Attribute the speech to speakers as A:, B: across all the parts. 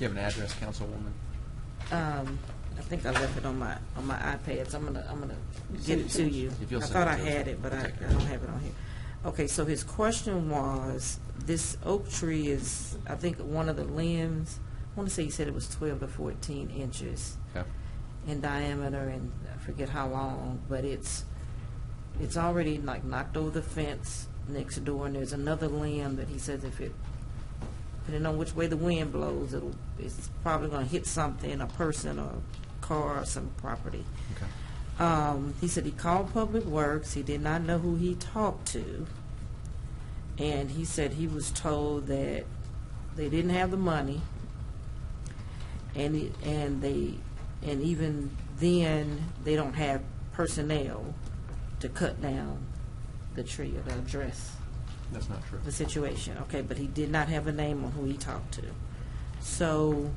A: you have an address, Councilwoman?
B: Um, I think I left it on my, on my iPad, so I'm gonna, I'm gonna get it to you.
A: If
B: I
A: you'll send
B: thought
A: it
B: I
A: to us.
B: had it, but I,
A: Okay.
B: I don't have it on here. Okay, so his question was, this oak tree is, I think, one of the limbs, I wanna say he said it was twelve to fourteen inches
A: Okay.
B: in diameter and I forget how long, but it's, it's already like knocked over the fence next door and there's another limb that he says if it, depending on which way the wind blows, it'll, it's probably gonna hit something, a person or car or some property.
A: Okay.
B: Um, he said he called Public Works, he did not know who he talked to. And he said he was told that they didn't have the money. And, he- and they, and even then, they don't have personnel to cut down the tree or to address
A: That's not true.
B: the situation. Okay, but he did not have a name on who he talked to. So,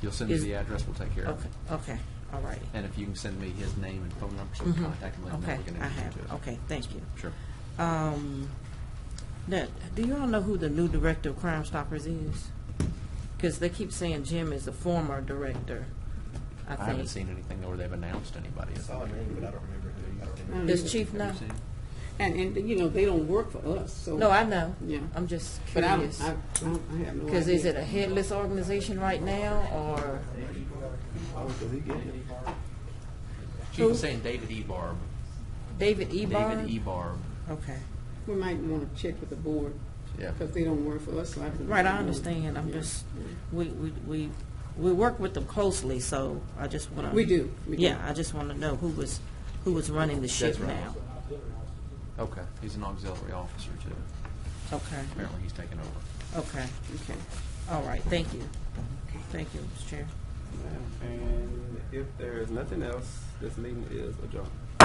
A: You'll send me
B: Is-
A: the address, we'll take care of
B: okay,
A: it.
B: okay, all righty.
A: And if you can send me his name and phone number, so we can contact him, let him know
B: Mm-hmm. Okay,
A: we can
B: I
A: introduce
B: have,
A: him
B: it. Oh.
A: to us.
B: okay, thank you.
A: Sure.
B: Um, now, do you all know who the new director of Crime Stoppers is? Because they keep saying Jim is the former director, I
A: I haven't
B: think.
A: seen anything where they've announced anybody.
C: I saw a name, but I don't remember who. I don't remember.
B: Does Chief know?
A: Have you seen?
D: Mm-hmm. And, and, you know, they don't work for us, so.
B: No, I know.
D: Yeah.
B: I'm just
D: But I, don't-
B: curious.
D: I, I don't- I have no idea.
B: Because is it a headless organization right now, or?
A: Chief
B: Who?
A: was saying David Ebarb.
B: David Ebar?
A: David Ebarb.
B: Okay.
D: We might want to check with the board,
A: Yeah.
D: because they don't work for us, so I. don't
B: Right, I
D: know.
B: understand. I'm
D: Yeah.
B: just, we, we, we, we work with them closely, so I just want to.
D: We do, we do.
B: Yeah, I just want to know who was, who was running the ship
A: That's right.
B: now.
A: Okay, he's an auxiliary officer too.
B: Okay,
A: Apparently, he's taken over.
B: okay.
D: Okay.
B: All right, thank you. Thank you, Mr. Chair.
E: And if there is nothing else, this meeting is adjourned.